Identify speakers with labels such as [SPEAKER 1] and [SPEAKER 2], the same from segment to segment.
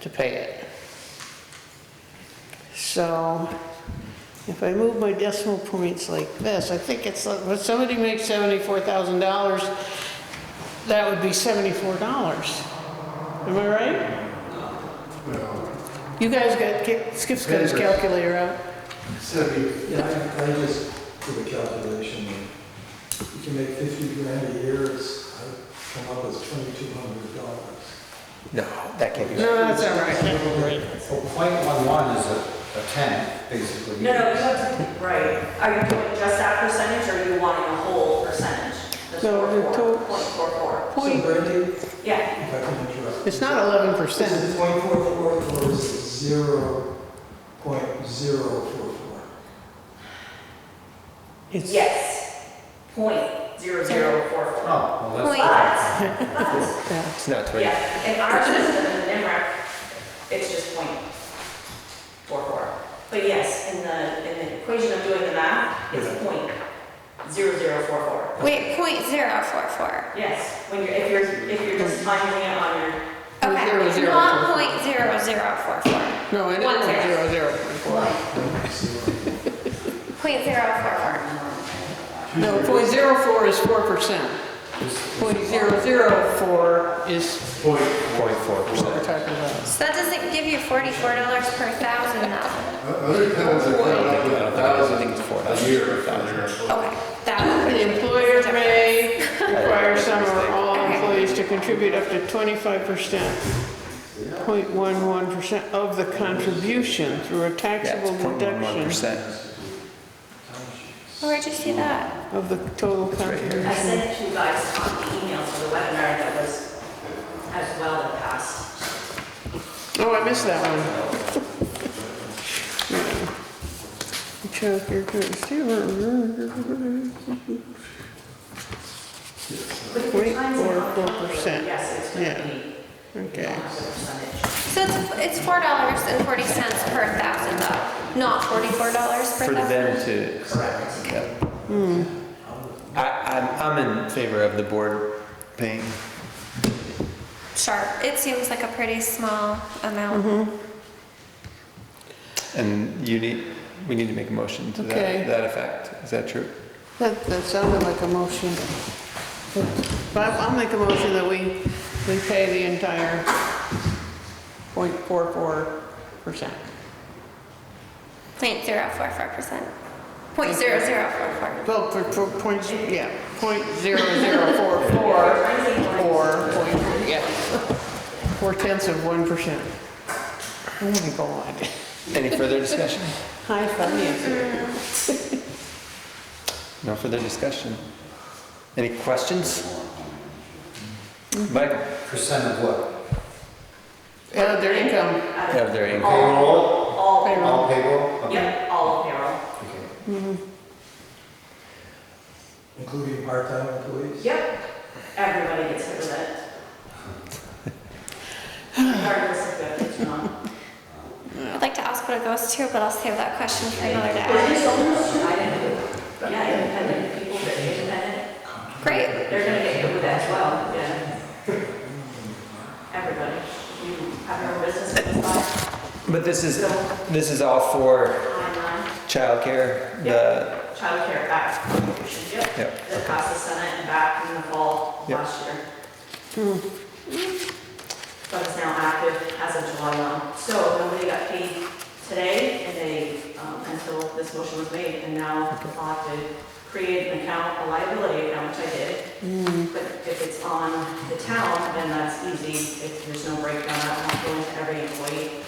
[SPEAKER 1] to pay it. So if I move my decimal points like this, I think it's, like- when somebody makes seventy-four thousand dollars, that would be seventy-four dollars. Am I right? You guys got, Ki- Skip's got his
[SPEAKER 2] Paper.
[SPEAKER 1] calculator out.
[SPEAKER 2] So we- yeah, I, I just did a calculation, you can make fifty grand a year, it's, I come up as twenty-two hundred dollars.
[SPEAKER 3] No, that can't be. right.
[SPEAKER 1] No, that's all right, that's all right.
[SPEAKER 4] Well, point one one is a, a ten, basically.
[SPEAKER 5] No, no, you have to, right, are you doing just that percentage, or are you wanting a whole percentage?
[SPEAKER 1] No, the to-
[SPEAKER 5] Point four four,
[SPEAKER 2] So
[SPEAKER 1] Point,
[SPEAKER 2] Brandy, if
[SPEAKER 5] yeah,
[SPEAKER 2] I can interrupt.
[SPEAKER 1] it's not eleven
[SPEAKER 2] This
[SPEAKER 1] percent.
[SPEAKER 2] is point four four or is it zero point zero four four?
[SPEAKER 1] It's
[SPEAKER 5] yes, point zero zero four
[SPEAKER 4] Oh,
[SPEAKER 5] four.
[SPEAKER 4] well, that's.
[SPEAKER 5] But, but,
[SPEAKER 3] It's not twenty.
[SPEAKER 5] yeah, in our system, in NIMRAC, it's just point four four. But yes, in the, in the equation of doing the math, it's point zero zero four four.
[SPEAKER 6] Wait, point zero four four.
[SPEAKER 5] Yes, when you're, if you're, if you're just finding it on your
[SPEAKER 1] Point
[SPEAKER 6] Okay,
[SPEAKER 1] zero
[SPEAKER 6] it's
[SPEAKER 1] zero
[SPEAKER 6] not
[SPEAKER 1] four
[SPEAKER 6] point zero zero four four.
[SPEAKER 1] No, I
[SPEAKER 6] One
[SPEAKER 1] know, zero,
[SPEAKER 6] zero.
[SPEAKER 1] zero point four.
[SPEAKER 6] Point zero four four.
[SPEAKER 1] No, point zero four is four percent. Point zero zero four is
[SPEAKER 3] Point four
[SPEAKER 1] what we're
[SPEAKER 3] percent.
[SPEAKER 1] talking about.
[SPEAKER 6] So that doesn't give you forty-four dollars per thousand though.
[SPEAKER 7] Other towns are coming up with a thousand a year for their
[SPEAKER 6] Okay, that would
[SPEAKER 1] The
[SPEAKER 6] be.
[SPEAKER 1] employer may require some or all employees to contribute up to twenty-five percent, 0.11 percent of the contribution through a
[SPEAKER 3] Yeah,
[SPEAKER 1] taxable
[SPEAKER 3] it's point one one
[SPEAKER 1] reduction
[SPEAKER 3] percent.
[SPEAKER 6] Oh, Where'd you see that?
[SPEAKER 1] of the total
[SPEAKER 3] right here.
[SPEAKER 5] I
[SPEAKER 1] contribution.
[SPEAKER 5] sent it to you guys on the email to the webinar that was as well that passed.
[SPEAKER 1] Oh, I missed that one. Yeah. Check your Point four four percent,
[SPEAKER 5] Yes, it's
[SPEAKER 1] Yeah.
[SPEAKER 5] gonna be.
[SPEAKER 1] okay.
[SPEAKER 5] Percentage.
[SPEAKER 6] So it's, it's four dollars and forty cents per thousand though, not forty-four dollars per
[SPEAKER 3] For
[SPEAKER 6] thousand.
[SPEAKER 3] them to. yeah. I, I'm, I'm in favor of the board paying.
[SPEAKER 6] Sure, it seems like a pretty small amount.
[SPEAKER 3] And you need, we need to make a motion to
[SPEAKER 1] Okay.
[SPEAKER 3] that, that effect. Is that true?
[SPEAKER 1] That, that sounded like a motion. But I'll I'll make a motion that we, we pay the entire 0.44 percent.
[SPEAKER 6] Point zero four four percent. Point zero zero four four.
[SPEAKER 1] Well, for, for points, yeah, point zero zero four four, or point, yeah, four tenths of one percent. Oh my God.
[SPEAKER 3] Any further discussion?
[SPEAKER 1] Hi, finance.
[SPEAKER 3] No further discussion. Any questions? Michael?
[SPEAKER 4] Percent of what?
[SPEAKER 1] Uh, their income,
[SPEAKER 3] Yeah, their income.
[SPEAKER 5] All, all payroll.
[SPEAKER 4] All payroll? Okay.
[SPEAKER 5] Yep, all payroll.
[SPEAKER 4] Okay.
[SPEAKER 2] Including part-time employees?
[SPEAKER 5] Yep, everybody gets hit with it. Regardless of if it's not.
[SPEAKER 6] I'd like to ask what it goes to, but I'll save that question for another
[SPEAKER 5] There's
[SPEAKER 6] day.
[SPEAKER 5] just almost, I didn't, yeah, independent people, that are independent,
[SPEAKER 6] Great.
[SPEAKER 5] they're gonna get hit with that as well, yeah. Everybody, you have your business in the spot,
[SPEAKER 3] But this is,
[SPEAKER 5] so.
[SPEAKER 3] this is all for
[SPEAKER 5] Timeline,
[SPEAKER 3] childcare, the,
[SPEAKER 5] childcare back contribution, yep.
[SPEAKER 3] Yep,
[SPEAKER 5] That passed the Senate and back in the fall
[SPEAKER 3] Yep.
[SPEAKER 5] last year. But it's now active as of July 1. So nobody got paid today and they, um, until this motion was made. And now I'll have to create an account, a liability account, which I did. But if it's on the town, then that's easy. If there's no breakdown, I won't go into every employee.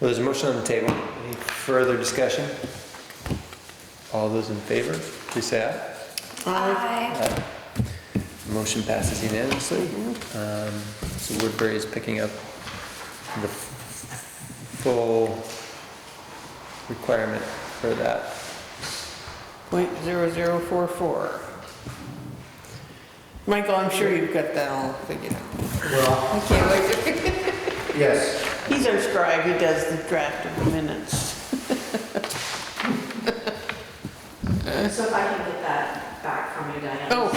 [SPEAKER 3] well, there's a motion on the table. Any further discussion? All those in favor, please say aye.
[SPEAKER 6] Aye.
[SPEAKER 3] Aye. Motion passes unanimously. Um, So Woodbury is picking up the full requirement for that.
[SPEAKER 1] point zero zero four four. Michael, I'm sure you've got that all figured out.
[SPEAKER 4] Well,
[SPEAKER 1] I can't wait to
[SPEAKER 4] yes,
[SPEAKER 1] He's our scribe, he does the draft of the minutes.
[SPEAKER 5] So if I can get that back from you, Diane.
[SPEAKER 1] Oh,